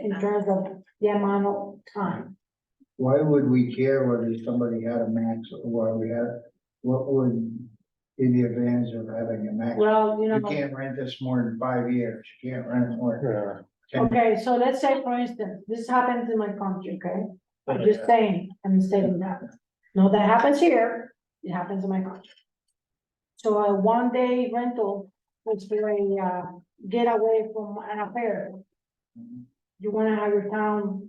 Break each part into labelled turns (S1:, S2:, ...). S1: in terms of the amount of time.
S2: Why would we care whether somebody had a max or we had, what would be the advantage of having a max?
S1: Well, you
S2: You
S1: know,
S2: can't rent this more than five years, you can't rent it more.
S3: Yeah.
S2: than
S1: okay, so let's say for instance, this happens in my country, okay? I'm just saying, I'm stating that. No, that happens here, it happens in my country. So a one day rental, which is a uh, getaway from an affair, you wanna have your town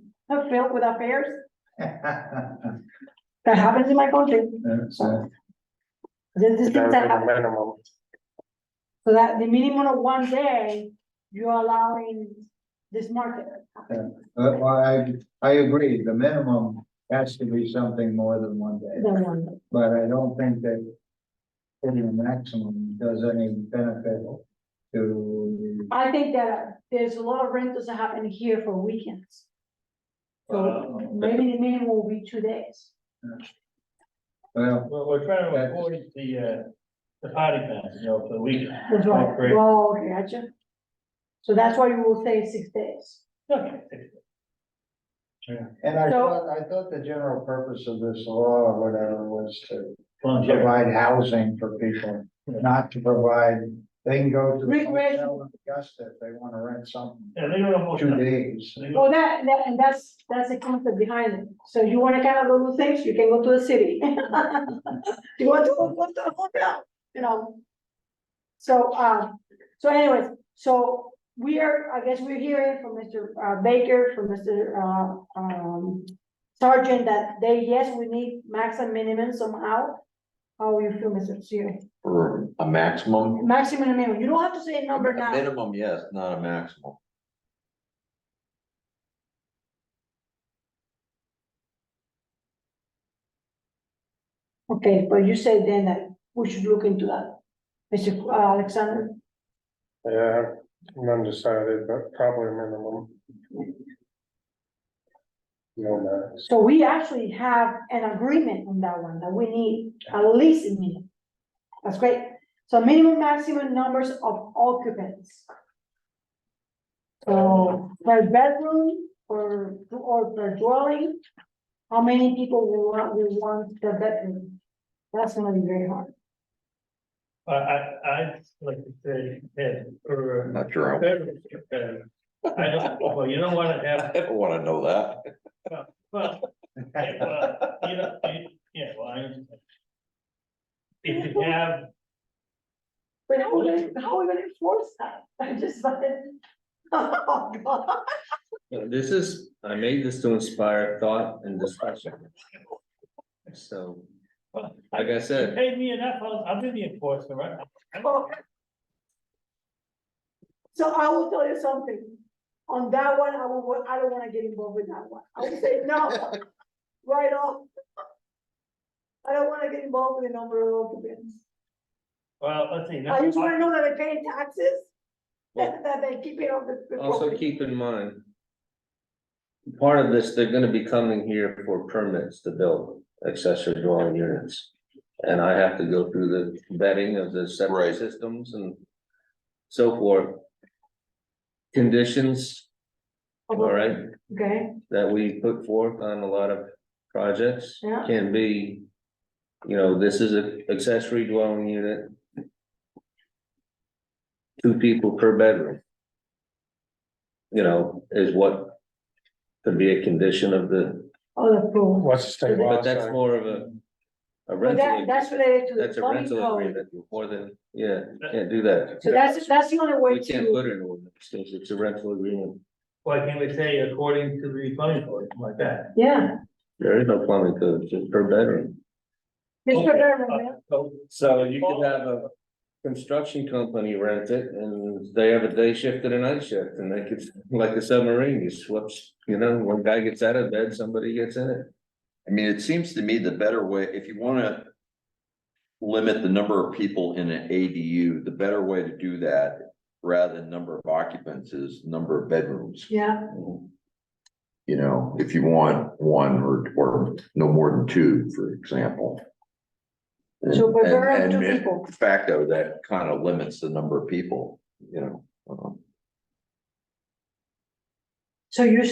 S1: filled with affairs? That happens in my country.
S2: That's, uh,
S1: This is things
S3: That's
S1: that
S3: the
S1: happen.
S3: minimum.
S1: So that the minimum of one day, you're allowing this market.
S2: But I, I agree, the minimum has to be something more than one
S1: the
S2: day,
S1: one day.
S2: but I don't think that putting a maximum does any benefit to
S1: I think that uh, there's a lot of rentals that happen here for weekends. So
S2: Wow.
S1: maybe the minimum will be two days.
S2: the, well,
S4: Well, we're trying to avoid the, uh, the potty fans, you know, for the weekend.
S1: That's right.
S4: Oh, great.
S1: Well, okay, gotcha. So that's why you will say six days.
S4: Okay.
S2: and I
S1: So-
S2: thought, I thought the general purpose of this law or whatever was to
S4: Longevity.
S2: provide housing for people, not to provide, they can go to the
S1: Recreation.
S2: hotel in Augusta if they wanna rent something,
S4: Yeah, they don't know.
S2: two days.
S4: They go-
S1: Well, that, that, and that's, that's the concept behind it. So you wanna kind of go do things, you can go to the city. You want to go to the hotel, you know? So, um, so anyways, so we are, I guess we're hearing from Mr. uh, Baker, from Mr. uh, um, Sergeant, that they, yes, we need max and minimum somehow. How you feel, Mr. Siri?
S5: For a maximum?
S1: Maximum and minimum, you don't have to say a number
S5: A
S1: now.
S5: Minimum, yes, not a maximum.
S1: Okay, but you said then that we should look into that. Mr. Qu- uh, Alexander?
S3: Yeah, I'm undecided, but probably minimum. No max.
S1: So we actually have an agreement on that one, that we need at least a minimum. That's great. So minimum, maximum numbers of occupants. So per bedroom or, or per dwelling, how many people we want, we want the bedroom? That's gonna be very hard.
S4: I, I, I'd like to say, yeah, uh, or.
S5: Not sure.
S4: I
S5: I-
S4: don't, well, you don't wanna have,
S5: I don't wanna know that.
S4: well, yeah, well, you know, you- yeah, well, I understand. If you have
S1: But how are we gonna, how are we gonna enforce that? I just, like, oh, God.
S6: Yeah, This is, I made this to inspire thought and discussion. So,
S4: Well,
S6: like I
S4: You
S6: said,
S4: paid me enough, I'll, I'll do the enforcement, right? I'm-
S1: So I will tell you something, on that one, I will, wa- I don't wanna get involved with that one, I will say no, right off. I don't wanna get involved with the number of occupants,
S4: Well, let's see.
S1: I just wanna know that they're paying taxes,
S6: well,
S1: that, that they keep it on the. the
S6: also
S1: property.
S6: keep in mind. Part of this, they're gonna be coming here for permits to build accessory dwelling units. And I have to go through the vetting of the
S5: Right.
S6: separate systems and so forth. Conditions, all right,
S1: Okay,
S6: that we put forth on a lot of projects
S1: Yeah.
S6: can be, you know, this is an accessory dwelling unit. Two people per bedroom. You know, is what could be a condition of the,
S1: all approved,
S3: What's the state law?
S6: but that's
S3: say?
S6: more of a, a
S1: but that,
S6: rental.
S1: that's related to the
S6: That's a
S1: plumbing
S6: rental
S1: code,
S6: agreement, more than, yeah, can't do that.
S1: so that's, that's the only way
S6: We can't
S1: to,
S6: put it in ordinance, because it's a rental agreement,
S4: Why can't we say according to the zoning code, something like that?
S1: yeah.
S6: there is no plumbing code, just per bedroom.
S1: Mr.
S4: Okay,
S1: Berman, yeah.
S4: Uh, so,
S6: So you could have a construction company rent it and they have a day shift and a night shift and they could, like a submarine, you swaps, you know, one guy gets out of bed, somebody gets in it.
S5: I mean, it seems to me the better way, if you wanna. Limit the number of people in an ADU, the better way to do that, rather than number of occupants is number of bedrooms.
S1: yeah,
S5: You know, if you want one or, or no more than two, for example.
S1: So, but
S5: And-
S1: there are
S5: and-
S1: two
S5: and
S1: people.
S5: de Facto, that kind of limits the number of people, you know. um,
S1: so you